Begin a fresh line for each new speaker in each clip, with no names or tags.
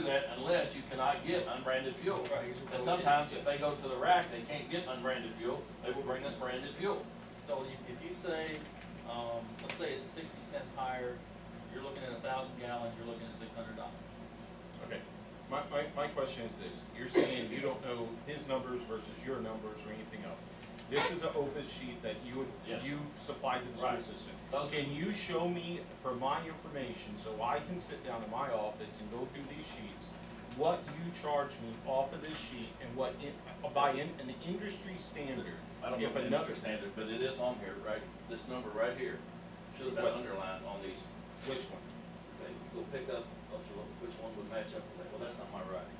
percent unless you cannot get unbranded fuel.
Right.
And sometimes if they go to the rack, they can't get unbranded fuel, they will bring us branded fuel.
So you- if you say, um, let's say it's sixty cents higher, you're looking at a thousand gallons, you're looking at six hundred dollars.
Okay, my, my, my question is this, you're saying you don't know his numbers versus your numbers or anything else. This is an open sheet that you,
Yes.
you supplied to the
Right.
school system.
Those-
Can you show me for my information, so I can sit down in my office and go through these sheets, what you charge me off of this sheet and what, in- by in- an industry standard?
I don't know
If
if it's
another-
industry standard, but it is on here, right? This number right here should have been
What?
underlined on these.
Which one?
Okay, We'll pick up, up to what- which one would match up with that. Well, that's not my writing.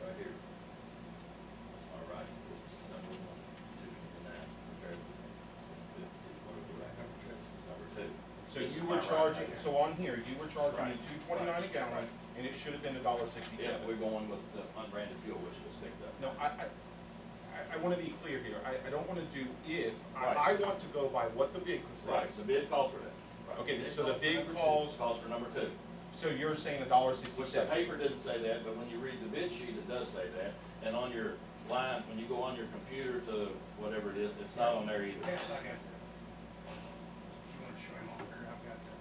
Right here. That's my writing. This is number one, two, and nine, compared with fifty, whatever rack number two, number two.
So
This is
you
my
were
writing
charging,
right here.
so on here, you were charging
Right.
me two twenty-nine a
Right.
gallon,
Right.
and it should have been a dollar
Yeah,
sixty-seven.
we're going with the unbranded fuel, which was picked up.
No, I, I- I, I want to be clear here. I, I don't want to do if. I,
Right.
I want to go by what the vehicle
Right,
says.
the bid called for that.
Okay,
Bid
so the
calls for
bid
number two.
calls-
Calls for number two.
So you're saying a dollar
Which the
sixty-seven?
paper didn't say that, but when you read the bid sheet, it does say that. And on your line, when you go on your computer to whatever it is, it's not on there either.
Yes, I got that. You wanna show him on here, I've got that.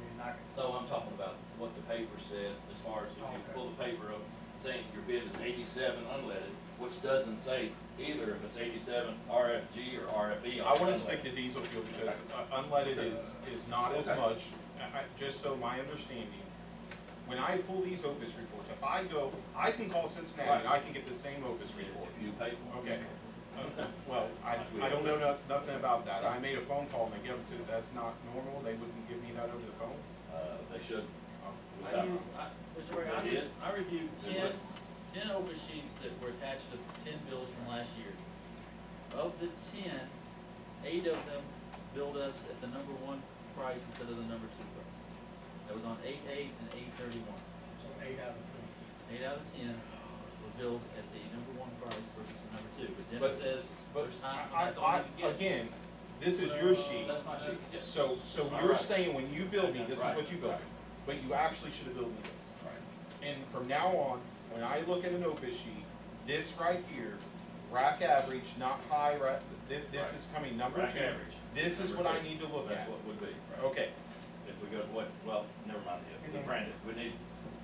And then I can-
No, I'm talking about what the paper said as far as if you
Okay.
pull the paper up saying your bid is eighty-seven unleaded, which doesn't say either if it's eighty-seven RFG or E. RFE.
I want to
unleaded.
stick to diesel fuel because uh, unleaded is, is not as
Okay.
much. I- I- Just so my understanding, when I pull these Opus reports, if I go, I can call Cincinnati and I can get the same Opus report.
If you pay for it.
Okay. Uh, Well, I, I don't know no- nothing about that. I made a phone call and they gave it to, that's not normal. They wouldn't give me that over the phone.
Uh, they should.
Oh.
I use, I, Mr. Ray,
They did?
I, I reviewed
Did what?
ten, ten open sheets that were attached to ten bills from last year. Of the ten, eight of them billed us at the number one price instead of the number two price. That was on eight eight and eight thirty-one.
So eight out of ten.
Eight out of ten were billed at the number one price versus the number two, but
But-
Dennis says
But
there's
I,
not, that's all
I,
you can get.
again, this is your sheet,
That's my sheet, yes.
so, so
All
you're
right.
saying when you build me, this is
Right,
what you build
right.
me, but you actually should have billed me this. And from now on, when I look at an Opus sheet, this right here, rack average, not high, rack, this, this is coming number
Rack
two.
average.
This is what
Number
I
two.
need to look
That's
at.
what would be.
Okay,
If we go to what, well, never mind, if the branded, we need,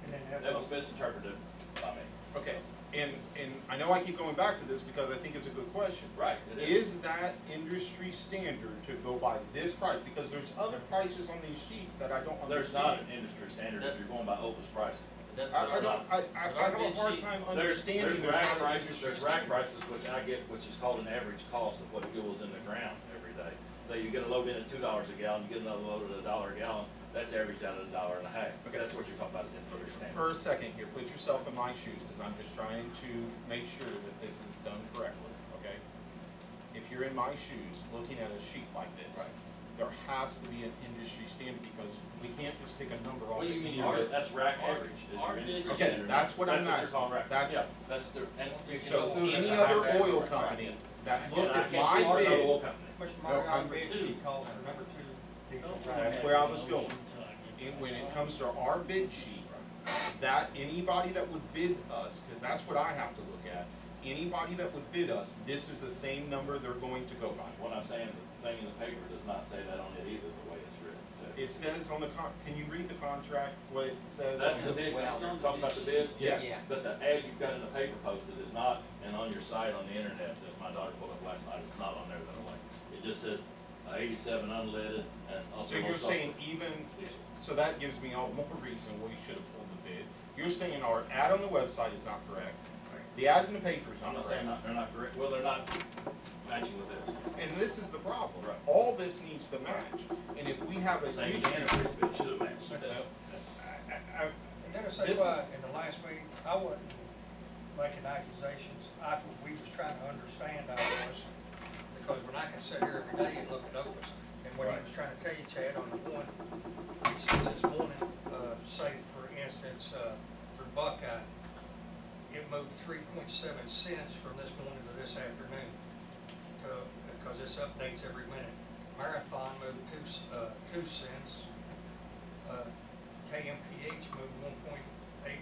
And then have.
that was misinterpreted by me.
okay. And, and I know I keep going back to this because I think it's a good question.
Right. It is.
Is that industry standard to go by this price? Because there's other prices on these sheets that I don't
There's not an
understand.
industry standard if
That's-
you're going by Opus pricing.
But that's
I,
what
I
I'm
don't, I, I I have a hard time
There's,
understanding.
there's
there's
rack
not an
prices,
industry
there's rack
standard.
prices, which I get, which is called an average cost of what fuel is in the ground every day. So you get a load in at two dollars a gallon, you get another load at a dollar a gallon, that's averaged out at a dollar and a half.
Okay.
That's what you're talking about, is industry standard.
For a second here, put yourself in my shoes, because I'm just trying to make sure that this is done correctly, okay? If you're in my shoes, looking at a sheet like this,
Right.
there has to be an industry standard, because we can't just pick a number off.
What do you
the
mean,
end of
your-
it.
that's rack
our-
average? is your
our
industry
bid-
Okay,
standard.
that's what I'm
That's what
asking.
you're calling rack,
That-
yeah, that's the, and you can
So
go through.
any
that.
other
Rack
oil
average,
company
right.
that
And
looked
I
at
can't
my
start another
bid,
oil company.
Mr.
No, I'm-
Martin, bid sheet calls for number two. diesel
That's where I was going. And when it comes to our bid sheet, that, anybody that would bid us, because that's what I have to look at, anybody that would bid us, this is the same number they're going to go by.
What I'm saying, the thing in the paper does not say that on it either, the way it's written. too.
It says on the con, can you read the contract, what it says?
That's the
on it?
bid,
Well,
talking about the bid,
Yes.
yes, but the ad you've got in the paper posted is not, and on your site on the internet that my daughter pulled up last night, it's not on there that way. It just says uh, eighty-seven unleaded and also.
So you're saying even,
Diesel.
so that gives me all more reason we should have pulled the bid. You're saying our ad on the website is not correct. The ad in the paper is
I'm
not
not saying
correct.
not, they're not correct, well, they're not matching with this.
And this is the problem.
Right.
All this needs to match. And if we have a.
Same as the
issue-
internet, but it should have matched.
No. I- I-
And then I
This
say
is-
why, in the last meeting, I wasn't making accusations, I, we was trying to understand I was, because when I can sit here every day and look at Opus, and what he was trying to tell you, Chad, on the one, since this morning, uh, say for instance, uh, for Buckeye, it moved three point seven cents from this morning to this afternoon, to, because this updates every minute. Marathon moved two, s- uh, two cents, uh, KMPH moved one point eight